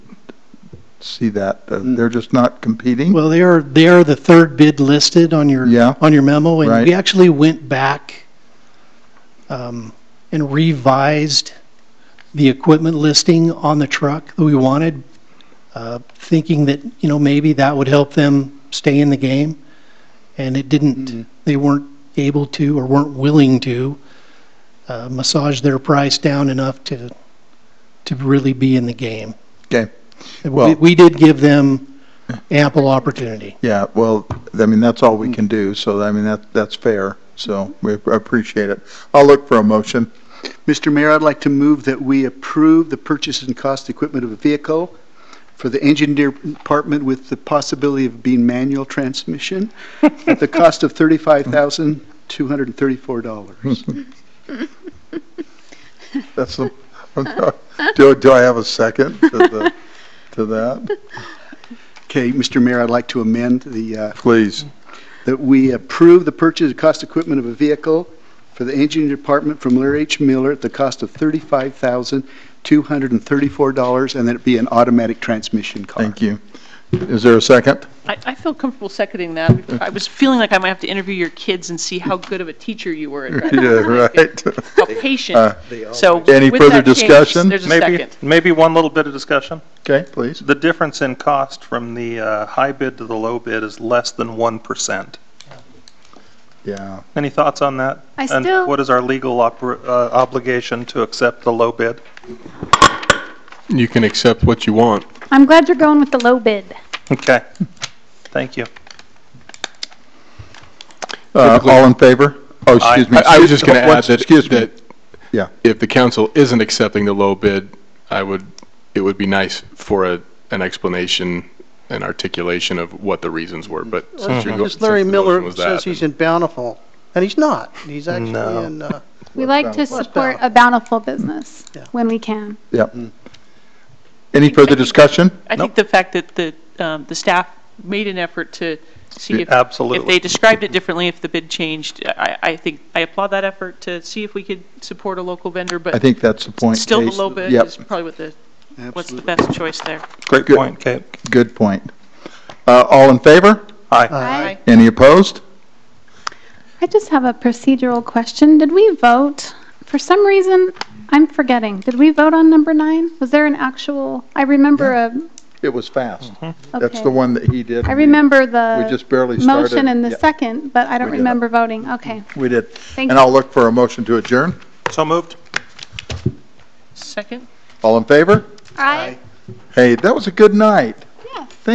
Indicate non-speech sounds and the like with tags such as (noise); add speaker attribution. Speaker 1: see that. Uh, They're just not competing.
Speaker 2: Well, they are, they are the third bid listed on your,
Speaker 1: Yeah.
Speaker 2: on your memo. And
Speaker 1: Right.
Speaker 2: we actually went back um, and revised the equipment listing on the truck that we wanted, uh, thinking that, you know, maybe that would help them stay in the game. And it
Speaker 1: Mm-hmm.
Speaker 2: didn't, they weren't able to or weren't willing to uh, massage their price down enough to, to really be in the game.
Speaker 1: Okay.
Speaker 2: We
Speaker 1: Well-
Speaker 2: we did give them ample opportunity.
Speaker 1: Yeah, well, I mean, that's all we can do, so I mean, that, that's fair, so we appreciate it. I'll look for a motion.
Speaker 3: Mr. Mayor, I'd like to move that we approve the purchase and cost equipment of a vehicle for the engineer department with the possibility of being manual transmission at the cost of
Speaker 1: Hmm.
Speaker 3: $35,234.
Speaker 1: That's, the- (laughs) do, do I have a second to the, to that?
Speaker 3: Okay, Mr. Mayor, I'd like to amend the, uh,
Speaker 1: Please.
Speaker 3: that we approve the purchase and cost equipment of a vehicle for the engineer department from Larry H. Miller at the cost of $35,234, and that it be an automatic transmission car.
Speaker 1: Thank you. Is there a second? (laughs)
Speaker 4: I, I feel comfortable seconding that. I was feeling like I might have to interview your kids and see how good of a teacher you were at
Speaker 1: (laughs)
Speaker 4: that,
Speaker 1: Yeah, right.
Speaker 4: how
Speaker 1: Uh,
Speaker 4: patient. So
Speaker 1: Any
Speaker 4: with
Speaker 1: further
Speaker 4: that change,
Speaker 1: discussion?
Speaker 4: There's a
Speaker 5: Maybe,
Speaker 4: second.
Speaker 5: maybe one little bit of discussion.
Speaker 1: Okay, please.
Speaker 5: The difference in cost from the uh, high bid to the low bid is less than 1%.
Speaker 1: Yeah,
Speaker 5: Any thoughts on that?
Speaker 6: I
Speaker 5: And
Speaker 6: still,
Speaker 5: what is our legal oper- uh, obligation to accept the low bid?
Speaker 7: You can accept what you want.
Speaker 6: I'm glad you're going with the low bid.
Speaker 5: Okay, thank you.
Speaker 1: Uh, all in favor? Oh, excuse me.
Speaker 7: I, I was just going to add
Speaker 1: Once-
Speaker 7: that,
Speaker 1: Excuse me,
Speaker 7: that
Speaker 1: Yeah.
Speaker 7: if the council isn't accepting the low bid, I would, it would be nice for a, an explanation and articulation of what the reasons were, but since you're go-
Speaker 8: Because Uh-huh. Larry
Speaker 7: since Mm-hmm. the motion
Speaker 8: Miller
Speaker 7: was that,
Speaker 8: says he's in Bountiful, and he's not. He's
Speaker 5: No.
Speaker 8: actually in, uh,
Speaker 6: We like to
Speaker 8: bountiful.
Speaker 6: support a bountiful business
Speaker 8: Yeah.
Speaker 6: when we can.
Speaker 1: any further discussion?
Speaker 4: I think the fact that the, um, the staff made an effort to see if, if they
Speaker 5: Absolutely.
Speaker 4: described it differently, if the bid changed, I, I think, I applaud that effort to see if we could support a local vendor,
Speaker 1: I
Speaker 4: but
Speaker 1: think that's the point.
Speaker 4: still the
Speaker 1: Case.
Speaker 4: low bid
Speaker 1: Yep.
Speaker 4: is probably what the, what's the
Speaker 3: Absolutely.
Speaker 4: best choice there.
Speaker 5: Great
Speaker 1: Good.
Speaker 5: point, Kate.
Speaker 1: Good point. Uh, all in favor?
Speaker 5: Aye.
Speaker 6: I,
Speaker 1: Any opposed?
Speaker 6: I just have a procedural question. Did we vote? For some reason, I'm forgetting. Did we vote on number nine? Was there an actual, I remember a,
Speaker 1: It was fast. That's the
Speaker 6: Mm-hmm. okay.
Speaker 1: one that he did.
Speaker 6: I remember
Speaker 1: We
Speaker 6: the
Speaker 1: just barely started.
Speaker 6: motion and
Speaker 1: Yeah,
Speaker 6: the second, but I don't
Speaker 1: We did.
Speaker 6: remember voting. Okay,
Speaker 1: We did.
Speaker 6: thank
Speaker 1: And
Speaker 6: you.
Speaker 1: I'll look for a motion to adjourn.
Speaker 5: So moved?
Speaker 4: Second?
Speaker 1: All in favor?
Speaker 6: Aye.
Speaker 1: Hey, that was a good night.